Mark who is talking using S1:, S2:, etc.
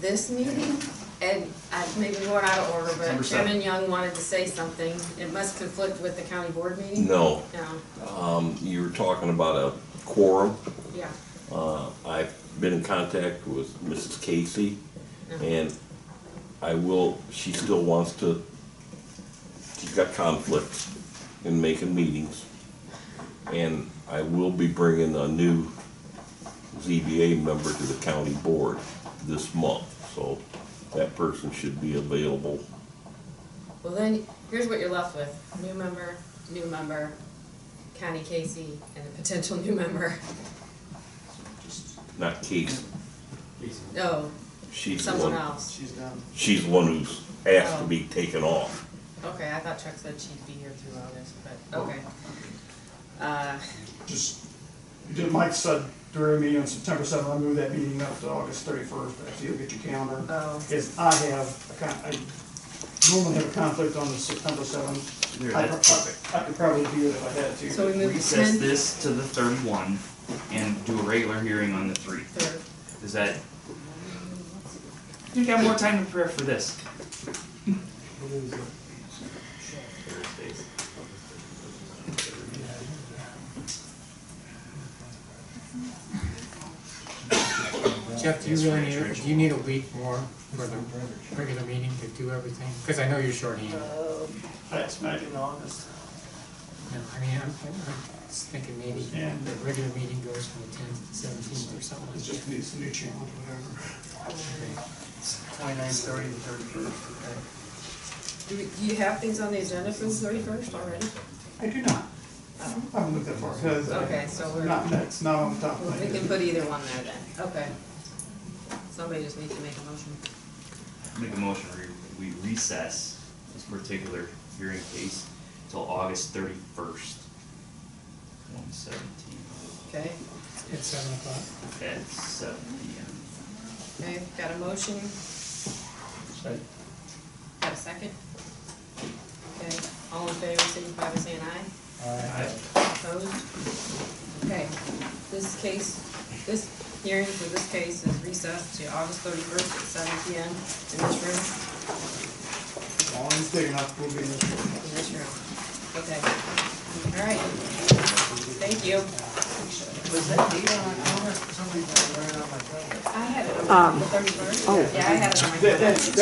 S1: this meeting, and I may be more out of order, but
S2: 100%.
S1: Chairman Young wanted to say something. It must conflict with the county board meeting?
S3: No,
S1: No,
S3: um, you were talking about a quorum.
S1: yeah,
S3: Uh, I've been in contact with Mrs. Casey,
S1: Mm-hmm.
S3: and I will, she still wants to, she's got conflicts in making meetings. And I will be bringing a new ZBA member to the county board this month, so that person should be available.
S1: well then, here's what you're left with, new member, new member, Connie Casey, and a potential new member.
S2: Just,
S3: Not Casey,
S2: easy.
S1: No,
S3: she's the
S1: someone
S3: one,
S1: else. Oh.
S2: She's done.
S3: she's the one who's asked to be taken off.
S1: Okay, I thought Chuck said she'd be here through August,
S3: Oh.
S1: but, okay. Uh,
S4: Just, did Mike said during the meeting on September seventh, I moved that meeting up to August thirty-first, if you'll get your calendar.
S1: oh,
S4: Is I have, a con- I normally have a conflict on the September seventh.
S2: There, that's perfect.
S4: I could probably do it if I had to.
S1: so we move to
S2: Recess
S1: ten,
S2: this to the thirty-one and do a regular hearing on the three.
S1: third,
S2: Is that? You got more time to prepare for this. Thursdays.
S5: Jeff, do you really need, do you need a week more for the regular meeting to do everything? Because I know you're shorthanded.
S4: I smacked in August.
S5: No, I mean, I'm, I'm just thinking maybe
S4: Yeah.
S5: the regular meeting goes from the tenth to seventeenth or something
S4: It
S5: like
S4: just
S5: that.
S4: needs a new challenge, whatever.
S6: Twenty-nine, thirty, and thirty-first, okay.
S1: do we, do you have things on the agenda for the thirty-first already?
S4: I do not. I haven't looked that far. ahead.
S1: Okay, so we're.
S4: Not next, not on top.
S1: Well, We can put either one there then, okay. Somebody just needs to make a motion.
S2: Make a motion, we we recess this particular hearing case till August thirty-first. One seventeen,
S1: Okay,
S5: At seven o'clock.
S2: at seven P M.
S1: okay, got a motion? Got a second? Okay, all in favor, signify by saying aye. Opposed? Okay, this case, this hearing for this case is recessed to August thirty-first at seven P M in this room,
S4: Long as big enough, we'll be in this room.
S1: in this room. Okay, all right. Thank you.
S6: Was that date on October? Somebody's got it right on my calendar.
S1: I had it on the thirty-first. Yeah, I had it on my.
S4: That- that- that's